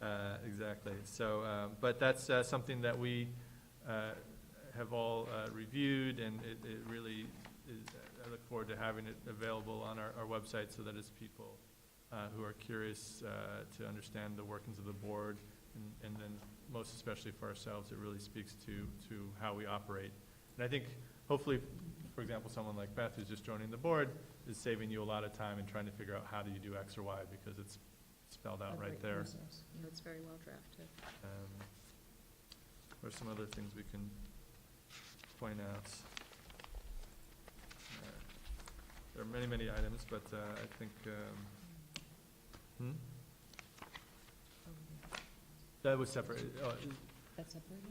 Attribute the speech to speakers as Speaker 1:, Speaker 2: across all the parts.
Speaker 1: Uh, Exactly. So, uh, but that's uh, something that we uh, have all uh, reviewed, and it it really is, uh, I look forward to having it available on our our website so that it's people uh, who are curious uh, to understand the workings of the board, and- and then most especially for ourselves, it really speaks to, to how we operate. And I think hopefully, for example, someone like Beth who's just joining the board is saving you a lot of time in trying to figure out how do you do X or Y, because it's spelled out right there.
Speaker 2: Yeah, it's very well drafted.
Speaker 1: Um, Or some other things we can point out. Uh, There are many, many items, but uh, I think, um, hmm? That was separate. uh,
Speaker 2: That's separated?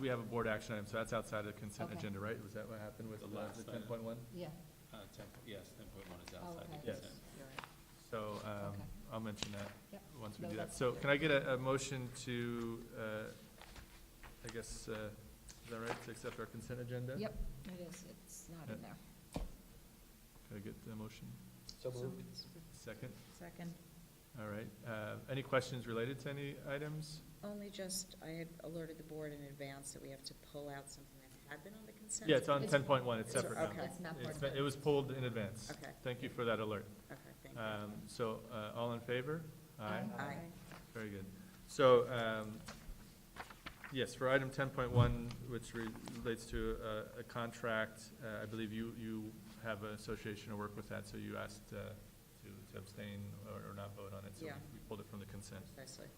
Speaker 1: We have a board action item, so that's outside of the consent
Speaker 2: Okay.
Speaker 1: agenda, right? Was that what happened with
Speaker 3: The last
Speaker 1: the ten
Speaker 3: item.
Speaker 1: point one?
Speaker 2: Yeah.
Speaker 3: Uh, ten, yes, ten point one is
Speaker 2: Oh,
Speaker 3: outside
Speaker 2: okay.
Speaker 3: the
Speaker 1: Yes.
Speaker 3: consent.
Speaker 2: You're right.
Speaker 1: So um,
Speaker 2: Okay.
Speaker 1: I'll mention that
Speaker 2: Yep.
Speaker 1: once we
Speaker 2: No,
Speaker 1: do that.
Speaker 2: that's
Speaker 1: So
Speaker 2: good.
Speaker 1: can I get a, a motion to, uh, I guess, uh, is that right, to accept our consent agenda?
Speaker 2: Yep, it is, it's not in there.
Speaker 1: Can I get a motion?
Speaker 3: So
Speaker 1: Second?
Speaker 2: Second.
Speaker 1: All right. Uh, Any questions related to any items?
Speaker 4: Only just, I had alerted the board in advance that we have to pull out something that had been on the consent.
Speaker 1: Yeah, it's on
Speaker 2: It's-
Speaker 1: ten point one, it's
Speaker 4: it's-
Speaker 1: separate now.
Speaker 4: okay.
Speaker 2: It's not part
Speaker 1: It's
Speaker 2: of
Speaker 1: been-
Speaker 2: it.
Speaker 1: It was pulled in advance.
Speaker 4: Okay,
Speaker 1: Thank you for that alert.
Speaker 4: okay, thank you.
Speaker 1: Um, So, uh, all in favor?
Speaker 2: Um,
Speaker 4: Aye.
Speaker 1: Very good. So, um, yes, for item ten point one, which re- relates to a, a contract, uh, I believe you, you have an association to work with that, so you asked uh, to to abstain or or not vote on it, so we-
Speaker 4: Yeah.
Speaker 1: we pulled it from the consent.
Speaker 4: Precisely.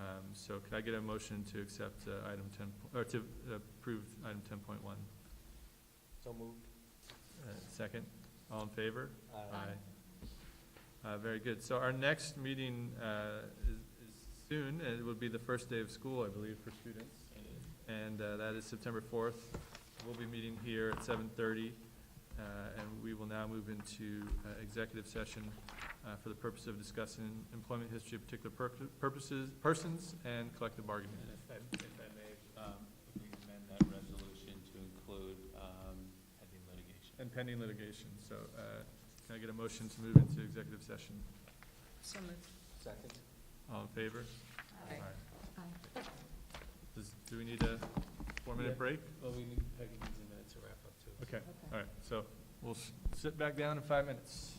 Speaker 1: Um, so could I get a motion to accept uh, item ten, po- or to approve item ten point one? Uh,
Speaker 3: So moved.
Speaker 1: Second, all in favor? Uh, very good. So our next meeting, uh, is, is soon, and it will be the first day of school, I believe, for students. And, uh, that is September fourth. We'll be meeting here at seven thirty, uh, and we will now move into, uh, executive session, uh, for the purpose of discussing employment history of particular pur- purposes, persons, and collective bargaining.
Speaker 3: And if I, if I may, um, if we amend that resolution to include, um, pending litigation.
Speaker 1: And pending litigation, so, uh, can I get a motion to move into executive session?
Speaker 4: So moved.
Speaker 3: Second.
Speaker 1: All in favor?
Speaker 4: Aye.
Speaker 1: Does, do we need a
Speaker 3: Yeah.
Speaker 1: four-minute break?
Speaker 3: Well, we need, Peggy needs a minute to wrap up too.
Speaker 1: Okay, all right, so we'll s- sit back down in five minutes.